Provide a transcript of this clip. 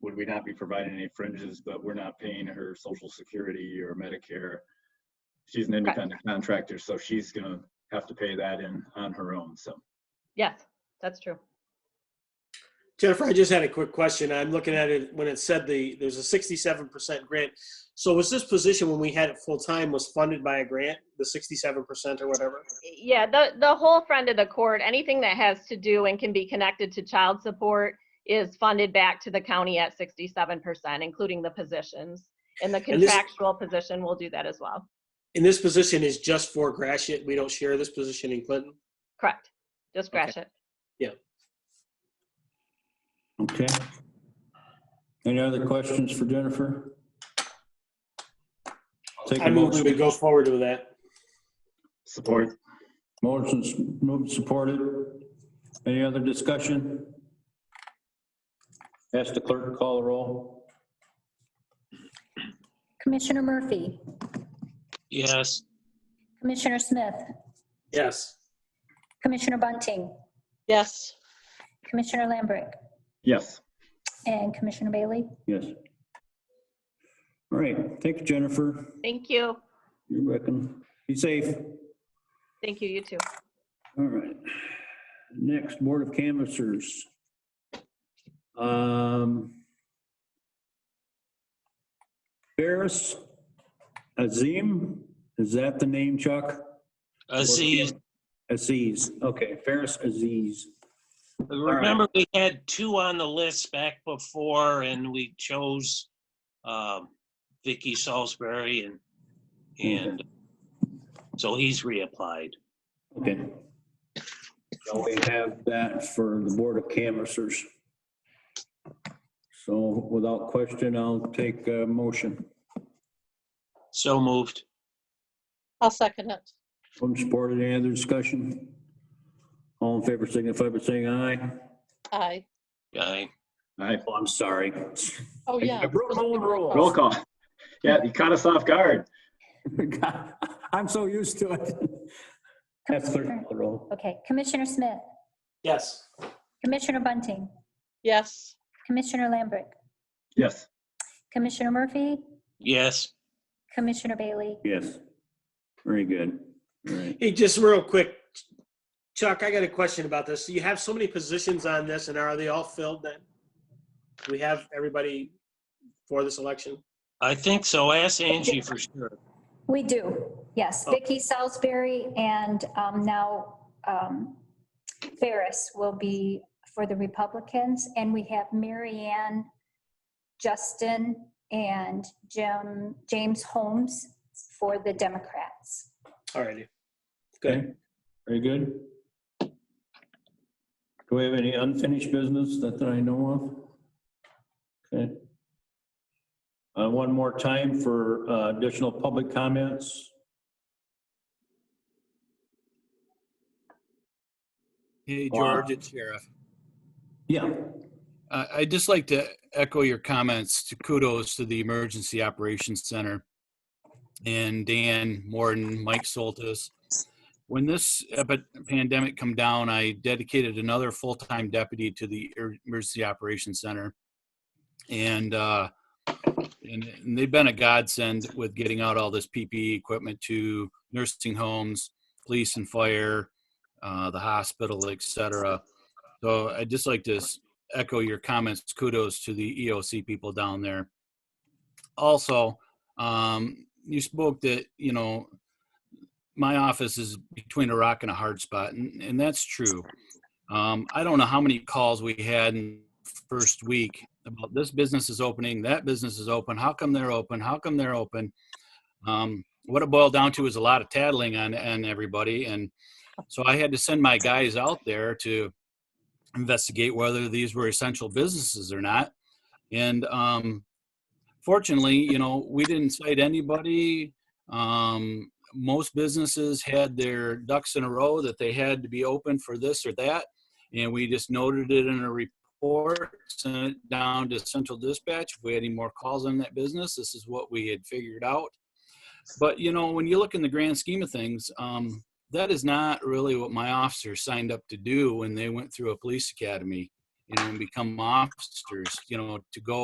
would we not be providing any fringes, but we're not paying her social security or Medicare? She's an independent contractor, so she's gonna have to pay that in on her own, so. Yes, that's true. Jennifer, I just had a quick question. I'm looking at it when it said the, there's a sixty-seven percent grant. So was this position when we had it full-time was funded by a grant, the sixty-seven percent or whatever? Yeah, the, the whole friend of the court, anything that has to do and can be connected to child support is funded back to the county at sixty-seven percent, including the positions. And the And this- contractual position will do that as well. And this position is just for Gratiot. We don't share this position in Clinton. Correct. Just Okay. Gratiot. Okay. Any other questions for Jennifer? Take I a move we motion. would go forward with that. Support, Motion's moved, and supported. Any other discussion? Ask the clerk to call the roll. Commissioner Murphy, yes, Commissioner Smith, Yes. Commissioner Bunting, yes, Commissioner Lambrecht, yes, and Commissioner Bailey. Yes. All right, thank you, Jennifer. Thank you. You're welcome. Be safe. Thank you, you too. All right. Next, Board of Canvassers. Um, Ferris Azim, is that the name, Chuck? Uh, Aziz. Aziz, okay, Ferris Aziz. Remember, we had two on the list back before, and we chose um, Vicky Salisbury, and, and so he's reapplied. Okay. So we have that for the Board of Canvassers. So without question, I'll take a motion. So moved. I'll second it. From supported, any other discussion? All in favor signify by saying aye. Aye. Aye. aye. Oh, I'm sorry. Oh, yeah. I broke my own rule. Roll call. Yeah, you caught us off guard. I'm so used to it. That's clerk call the roll. Okay, Commissioner Smith, Yes. Commissioner Bunting, Yes, Commissioner Lambrecht, Yes, Commissioner Murphy, Yes, Commissioner Bailey. Yes. Very good. All right. Hey, just real quick, Chuck, I got a question about this. You have so many positions on this and are they all filled then? Do We have everybody for this election? I think so. Ask Angie for sure. We do, yes. Oh. Vicky Salisbury and um, now um, Ferris will be for the Republicans. And we have Mary Ann, Justin, and Jim, James Holmes for the Democrats. All righty. Okay. Very good. Do we have any unfinished business that that I know of? Okay. Uh, One more time for uh, additional public comments. Hey, Wow. George, it's Sheriff. Yeah. I- I'd just like to echo your comments to kudos to the Emergency Operations Center and Dan Morton, Mike Soltis. When this epi- pandemic come down, I dedicated another full-time deputy to the Er- Emergency Operations Center. And, uh, and and they've been a godsend with getting out all this PPE equipment to nursing homes, police and fire, uh, the hospital, et cetera. So I'd just like to s- echo your comments. Kudos to the EOC people down there. Also, um, you spoke that, you know, my office is between a rock and a hard spot, and, and that's true. Um, I don't know how many calls we had in first week about this business is opening, that business is open, how come they're open, how come they're open? Um, what it boiled down to is a lot of tattling on, on everybody, and so I had to send my guys out there to investigate whether these were essential businesses or not. And um, fortunately, you know, we didn't cite anybody. Um, most businesses had their ducks in a row that they had to be open for this or that. And we just noted it in a report, sent it down to central dispatch. If we had any more calls on that business, this is what we had figured out. But, you know, when you look in the grand scheme of things, um, that is not really what my officers signed up to do when they went through a police academy, you know, and become officers, you know, to go